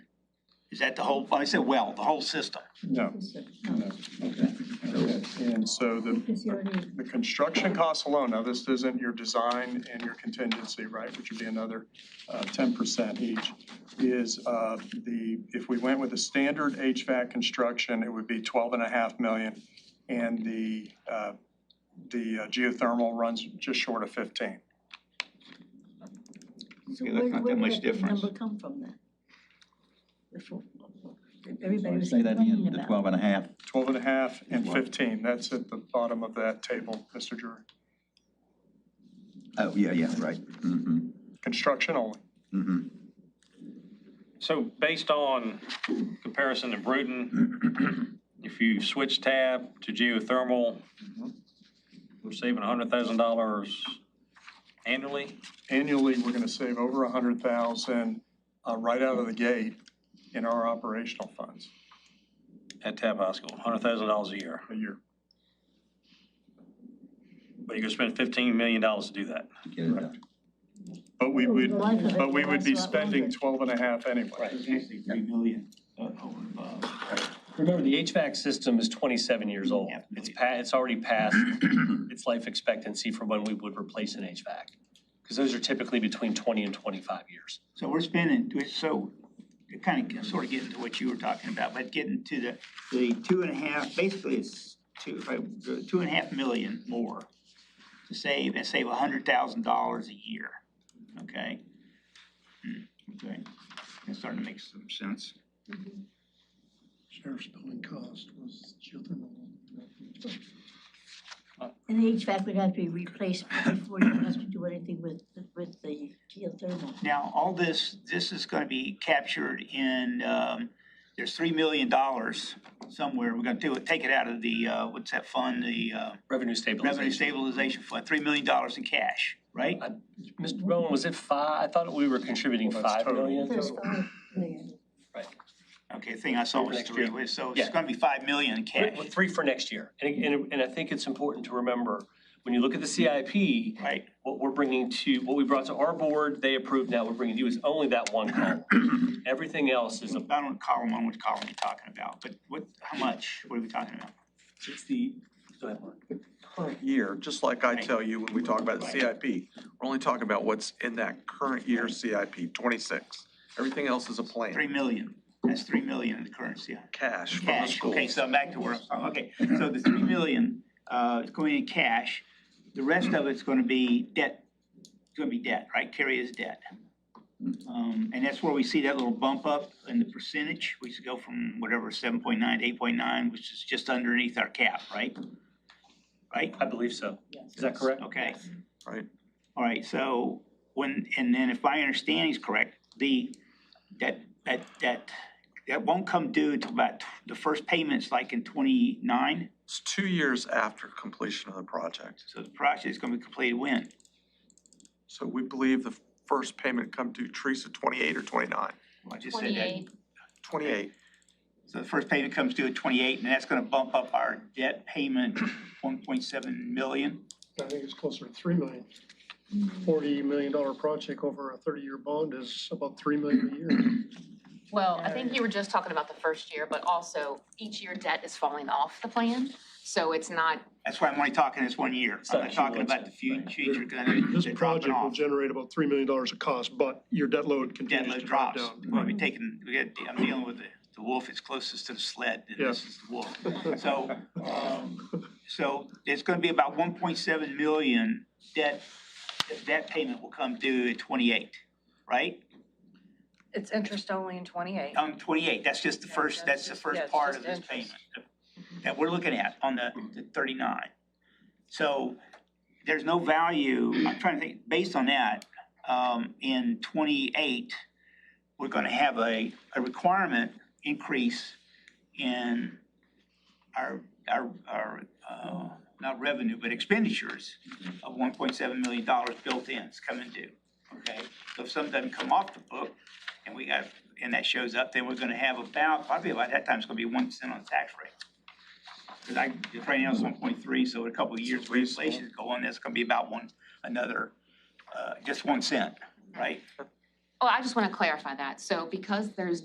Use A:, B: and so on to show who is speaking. A: Is that the whole, I said well, the whole system?
B: No, no, okay. And so the,
C: Because you already,
B: the construction costs alone, now this isn't your design and your contingency, right, which would be another uh, ten percent each, is uh, the, if we went with a standard HVAC construction, it would be twelve and a half million, and the, uh, the uh, geothermal runs just short of fifteen.
C: so
D: Okay,
C: where,
D: that's
C: where
D: not that
C: did
D: much
C: that big
D: difference.
C: number come from then? The four- Everybody was
D: Say that
C: complaining
D: again, the
C: about.
D: twelve and a half.
B: Twelve and a half and
D: Wow.
B: fifteen, that's at the bottom of that table, Mr. Drury.
D: Oh, yeah, yeah, right. Mm-hmm,
B: Construction only.
D: mm-hmm.
E: So based on comparison to Bruton, if you switch tab to geothermal,
F: Mm-hmm.
E: we're saving $100,000 annually?
B: annually, we're gonna save over a hundred thousand, uh, right out of the gate in our operational funds
E: at Tab High School, hundred thousand dollars a year,
B: a year.
E: but you're gonna spend fifteen million dollars to do that.
D: Get it done.
B: But we
C: Over
B: would,
C: the life of it,
B: but we would be
C: that's a lot
B: spending
C: longer.
B: twelve and a half anyway.
F: Actually, three million. uh, uh, Remember, the HVAC system is twenty-seven years old.
A: Yeah.
F: It's pa, it's already past its life expectancy for when we would replace an HVAC. Because those are typically between twenty and twenty-five years.
A: So we're spending, so kind of, sort of getting to what you were talking about, but getting to the, the two and a half, basically it's two, if I- two and a half million more to save, and save a hundred thousand dollars a year, okay? Hmm, Okay, that's starting to make some sense.
G: Sheriff's building cost was geothermal.
C: And the HVAC would have to be replaced before you have to do anything with, with the geothermal.
A: Now, all this, this is gonna be captured in, um, there's three million dollars somewhere, we're gonna do it, take it out of the, uh, what's that fund, the, uh,
F: Revenue
A: revenue
F: stabilization.
A: stabilization fund, three million dollars in cash, right?
F: Mr. Bowen, was it five? I thought we were contributing
B: Well, Oh, that's
F: five
B: total.
F: million.
C: There's five million.
A: Okay, thing I saw was
F: Next
A: three,
F: year.
A: was- so it's
F: Yeah.
A: gonna be five million in
F: Three-
A: cash,
F: well, Three for next year. And, and, and I think it's important to remember, when you look at the CIP,
A: right?
F: what we're bringing to, what we brought to our board, they approved, now we're bringing to you is only that one column. Everything else is a
A: I don't call them on which column you're talking about, but what, how much, what are we talking about?
F: It's the, go ahead, Mark.
H: current year, just like I tell you when we talk about the
A: Right.
H: CIP, we're only talking about what's in that current year CIP, twenty-six. Everything else is a
A: Three
H: plan,
A: million, that's three million in the currency,
H: cash from the
A: cash, okay,
H: schools. Mm-hmm.
A: so I'm back to where, I'm from. okay, so the three million, uh, is going in cash. The rest of it's gonna be debt, it's gonna be debt, right, carry is debt. Um, and that's where we see that little bump up in the percentage, we should go from whatever, seven point nine to eight point nine, which is just underneath our cap, right? Right?
F: I believe so. Is that correct?
A: Okay.
H: Right.
A: All right, so when, and then if my understanding is correct, the, that, that, that, that won't come due until about tw- the first payment's like in twenty-nine?
H: It's two years after completion of the project.
A: So the project is gonna be completed when?
H: So we believe the first payment come due, Teresa, twenty-eight or twenty-nine?
A: Well, I just said that.
I: Twenty-eight,
H: Twenty-eight.
A: So the first payment comes due at twenty-eight, and that's gonna bump up our debt payment one point seven million?
G: I think it's closer to three million. Forty million dollar project over a thirty-year bond is about three million a year.
I: well, I think you were just talking about the first year, but also each year debt is falling off the plan. So it's not,
A: That's why I'm only talking this one year. I'm not
F: Section
A: talking
F: one,
A: about the fu-
F: right.
A: future, because I know
G: This
A: they're dropping
G: project will
A: off.
G: generate about three million dollars of cost, but your debt load
A: Debt
G: continues
A: load
G: to drop
A: drops.
G: down.
A: We'll be taking, we got, I'm dealing with the, the wolf is closest to the sled, and this
G: Yeah.
A: is the wolf. So, um, so it's gonna be about one point seven million debt, that payment will come due at twenty-eight, right?
J: It's interest only in twenty-eight.
A: Um, twenty-eight, that's just the
J: Yeah,
A: first,
J: that's
A: that's the
J: just- yeah,
A: first
J: it's
A: part
J: just
A: of this payment
J: interest.
A: that we're looking at on the the thirty-nine. So there's no value, I'm trying to think, based on that, um, in twenty-eight, we're gonna have a, a requirement increase in our, our, our, uh, not revenue, but expenditures of one point seven million dollars built in, it's coming due, okay? So if something doesn't come off the book, and we got, and that shows up, then we're gonna have about, probably about that time, it's gonna be one percent on the tax rate. Cause I, if right now it's one point three, so in a couple of years, where inflation is going, that's gonna be about one, another, uh, just one cent, right?
I: oh, I just want to clarify that. So because there's